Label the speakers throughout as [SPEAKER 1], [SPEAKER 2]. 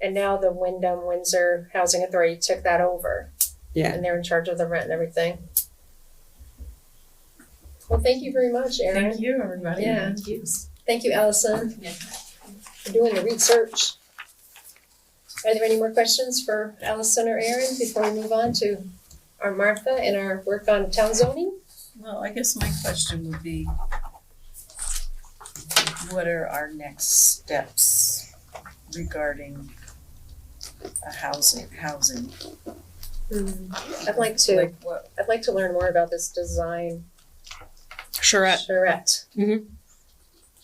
[SPEAKER 1] And now the Wyndham Windsor Housing Authority took that over
[SPEAKER 2] Yeah.
[SPEAKER 1] and they're in charge of the rent and everything. Well, thank you very much, Erin.
[SPEAKER 3] Thank you, everybody.
[SPEAKER 1] Yeah.
[SPEAKER 3] Thank you.
[SPEAKER 1] Thank you, Allison,
[SPEAKER 3] Yeah.
[SPEAKER 1] for doing the research. Are there any more questions for Allison or Erin before we move on to our Martha and our work on town zoning?
[SPEAKER 3] Well, I guess my question would be, what are our next steps regarding a housing, housing?
[SPEAKER 1] I'd like to,
[SPEAKER 3] Like what,
[SPEAKER 1] I'd like to learn more about this design
[SPEAKER 2] Charette.
[SPEAKER 1] charrette.
[SPEAKER 2] Mhm.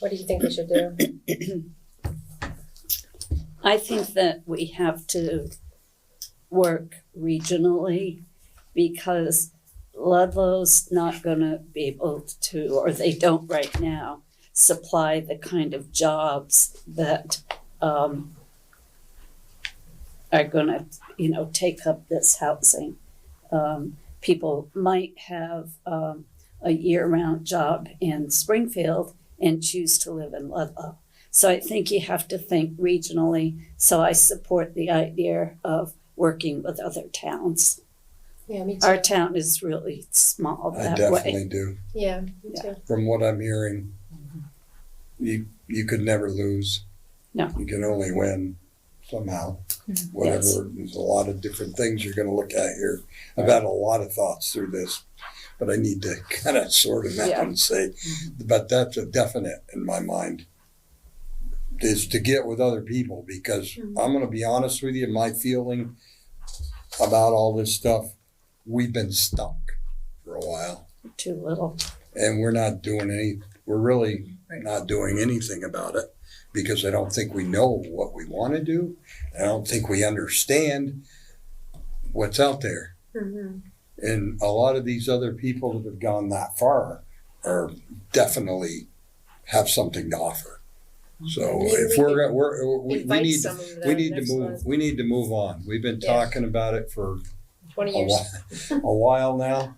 [SPEAKER 1] What do you think we should do?
[SPEAKER 4] I think that we have to work regionally because Ludlow's not gonna be able to, or they don't right now, supply the kind of jobs that um are gonna, you know, take up this housing. Um, people might have um a year-round job in Springfield and choose to live in Ludlow. So I think you have to think regionally. So I support the idea of working with other towns.
[SPEAKER 1] Yeah, me too.
[SPEAKER 4] Our town is really small
[SPEAKER 5] I
[SPEAKER 4] that way.
[SPEAKER 5] definitely do.
[SPEAKER 1] Yeah, me
[SPEAKER 4] Yeah.
[SPEAKER 1] too.
[SPEAKER 5] From what I'm hearing, you you could never lose.
[SPEAKER 4] No. Mm-hmm.
[SPEAKER 5] You can only win somehow.
[SPEAKER 3] Mhm.
[SPEAKER 5] Whatever.
[SPEAKER 4] Yes.
[SPEAKER 5] There's a lot of different things you're going to look at here. I've had a lot of thoughts through this, but I need to kind of sort them out
[SPEAKER 4] Yeah.
[SPEAKER 5] and say,
[SPEAKER 3] Mhm.
[SPEAKER 5] but that's a definite in my mind. Is to get with other people because
[SPEAKER 4] Mm-hmm.
[SPEAKER 1] Mhm.
[SPEAKER 5] I'm going to be honest with you, my feeling about all this stuff, we've been stuck for a while
[SPEAKER 4] Too little.
[SPEAKER 5] and we're not doing any, we're really
[SPEAKER 3] Right.
[SPEAKER 5] not doing anything about it because I don't think we know what we want to do. I don't think we understand what's out there.
[SPEAKER 1] Mhm.
[SPEAKER 5] And a lot of these other people that have gone that far are definitely have something to offer. So
[SPEAKER 1] Maybe we
[SPEAKER 5] if we're,
[SPEAKER 1] could
[SPEAKER 5] gonna- we're, we, we
[SPEAKER 1] Invite
[SPEAKER 5] need,
[SPEAKER 1] some of the
[SPEAKER 5] we need to
[SPEAKER 1] next
[SPEAKER 5] move,
[SPEAKER 1] ones.
[SPEAKER 5] we need to move on. We've been
[SPEAKER 1] Yeah.
[SPEAKER 5] talking about it for
[SPEAKER 1] Twenty
[SPEAKER 5] a
[SPEAKER 1] years.
[SPEAKER 5] while, a while now,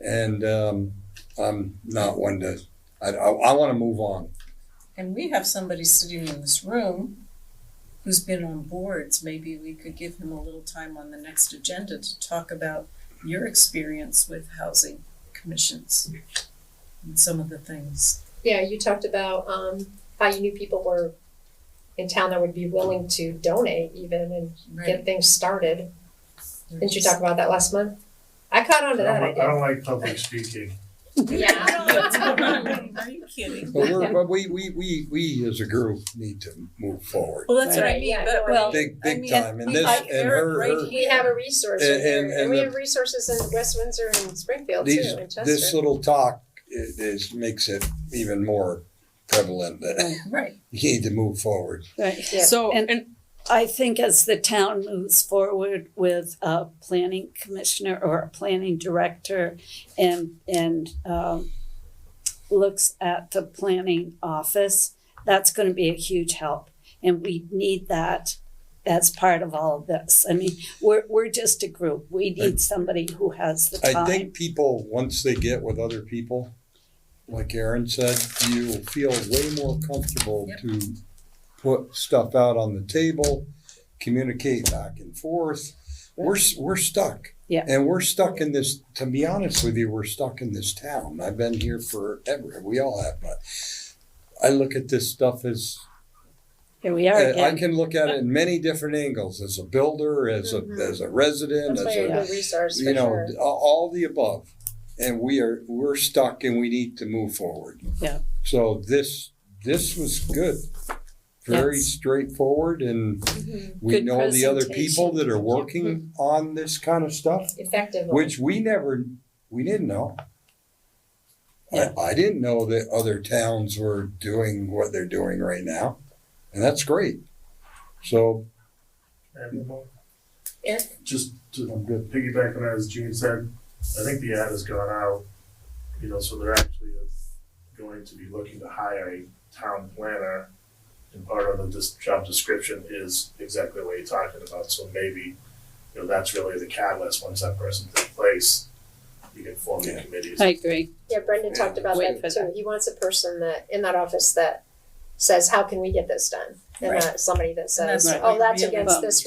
[SPEAKER 5] and um, I'm not one to. I, I, want to move on.
[SPEAKER 3] and we have somebody sitting in this room who's been on boards, maybe we could give him a little time on the next agenda to talk about your experience with housing commissions and some of the things.
[SPEAKER 1] Yeah, you talked about um how you knew people were in town that would be willing to donate even and get things started. Didn't you talk about that last month? I caught on to that
[SPEAKER 6] I don't, I
[SPEAKER 1] idea.
[SPEAKER 6] don't like public speaking.
[SPEAKER 1] Yeah.
[SPEAKER 3] Are you kidding?
[SPEAKER 5] But, we're, but we, we, we, we as a group need to move forward,
[SPEAKER 3] Well, that's what I
[SPEAKER 1] Right,
[SPEAKER 3] mean,
[SPEAKER 1] yeah,
[SPEAKER 3] but
[SPEAKER 4] well,
[SPEAKER 5] big
[SPEAKER 3] I
[SPEAKER 5] big
[SPEAKER 3] mean,
[SPEAKER 5] time. And
[SPEAKER 3] we-
[SPEAKER 5] this
[SPEAKER 3] I-
[SPEAKER 5] and
[SPEAKER 3] Eric
[SPEAKER 5] her,
[SPEAKER 3] right
[SPEAKER 5] her-
[SPEAKER 1] We have a resource in
[SPEAKER 5] And-
[SPEAKER 1] here,
[SPEAKER 5] and-
[SPEAKER 1] and
[SPEAKER 5] and
[SPEAKER 1] we
[SPEAKER 5] the-
[SPEAKER 1] have resources in West Windsor and Springfield too,
[SPEAKER 5] these
[SPEAKER 1] in
[SPEAKER 5] this
[SPEAKER 1] Chester.
[SPEAKER 5] little talk i- is makes it even more prevalent that
[SPEAKER 3] Right,
[SPEAKER 5] you need to move forward.
[SPEAKER 4] Right.
[SPEAKER 1] Yeah.
[SPEAKER 2] So,
[SPEAKER 4] And-
[SPEAKER 2] and
[SPEAKER 4] I think as the town moves forward with a planning commissioner or a planning director and, and, um, looks at the planning office, that's gonna be a huge help. And we need that as part of all of this. I mean, we're, we're just a group. We need somebody who has the
[SPEAKER 5] I
[SPEAKER 4] time.
[SPEAKER 5] think people once they get with other people, like Aaron said, you will feel way more comfortable
[SPEAKER 3] Yep.
[SPEAKER 5] to put stuff out on the table, communicate back and forth. We're s- we're stuck.
[SPEAKER 4] Yeah.
[SPEAKER 5] And we're stuck in this. To be honest with you, we're stuck in this town. I've been here forever. We all have, but I look at this stuff as
[SPEAKER 4] Here we are
[SPEAKER 5] I
[SPEAKER 4] again.
[SPEAKER 5] can look at it in many different angles. As a builder, as a
[SPEAKER 1] Mhm.
[SPEAKER 5] as a resident,
[SPEAKER 1] That's why
[SPEAKER 5] as
[SPEAKER 1] you're
[SPEAKER 5] a
[SPEAKER 1] a good resource for
[SPEAKER 5] you know
[SPEAKER 1] sure.
[SPEAKER 5] a- all the above and we are we're stuck and we need to move forward
[SPEAKER 4] Yeah.
[SPEAKER 5] so this this was good very
[SPEAKER 4] Yes.
[SPEAKER 5] straightforward and
[SPEAKER 1] Mhm.
[SPEAKER 5] we
[SPEAKER 4] Good
[SPEAKER 5] know the other people
[SPEAKER 4] presentation.
[SPEAKER 5] that are working on this kind of stuff
[SPEAKER 1] Effectively.
[SPEAKER 5] which we never we didn't know
[SPEAKER 4] Yeah.
[SPEAKER 5] I, I didn't know that other towns were doing what they're doing right now and that's great so
[SPEAKER 1] Eric?
[SPEAKER 6] Just to
[SPEAKER 5] i'm good
[SPEAKER 6] piggyback on that, as Gene said, I think the ad has gone out, you know, so they're actually uh, going to be looking to hire a town planner. And part of the dis- job description is exactly what you're talking about, so maybe, you know, that's really the catalyst, once that person's in place, you can form the
[SPEAKER 5] Yeah.
[SPEAKER 6] committees.
[SPEAKER 4] I agree.
[SPEAKER 1] Yeah, Brendan talked about
[SPEAKER 4] Wait
[SPEAKER 1] that
[SPEAKER 4] for
[SPEAKER 1] too.
[SPEAKER 4] that.
[SPEAKER 1] He wants a person that, in that office that says, how can we get this done? And
[SPEAKER 4] Right.
[SPEAKER 1] not somebody that
[SPEAKER 3] that's
[SPEAKER 1] says,
[SPEAKER 3] what
[SPEAKER 1] oh,
[SPEAKER 3] we
[SPEAKER 1] that's
[SPEAKER 3] really
[SPEAKER 1] "Oh, against
[SPEAKER 4] want.
[SPEAKER 1] this